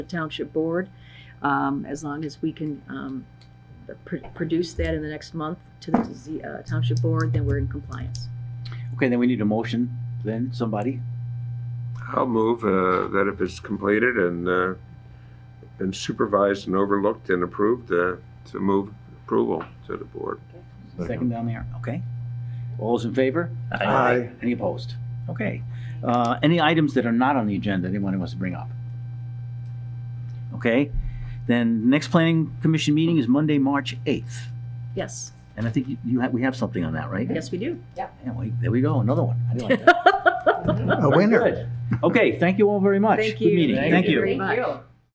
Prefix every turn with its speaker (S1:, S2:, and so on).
S1: the township board. Um, as long as we can, um, pr- produce that in the next month to the Z- uh, township board, then we're in compliance.
S2: Okay, then we need a motion, then, somebody?
S3: I'll move uh, that if it's completed and, uh, and supervised and overlooked and approved, uh, to move approval to the board.
S2: Second down there, okay. All those in favor?
S4: Aye.
S2: Any opposed? Okay. Uh, Any items that are not on the agenda anyone wants to bring up? Okay, then next planning commission meeting is Monday, March 8th.
S1: Yes,
S2: And I think you- you, have- we have something on that, right?
S1: yes, we do.
S2: Yeah, we- There we go, another one. I didn't like that.
S4: A winner.
S2: Okay, thank you all very much.
S1: Thank
S2: Good
S1: you.
S2: meeting, thank you.
S1: very much.
S5: Thank you.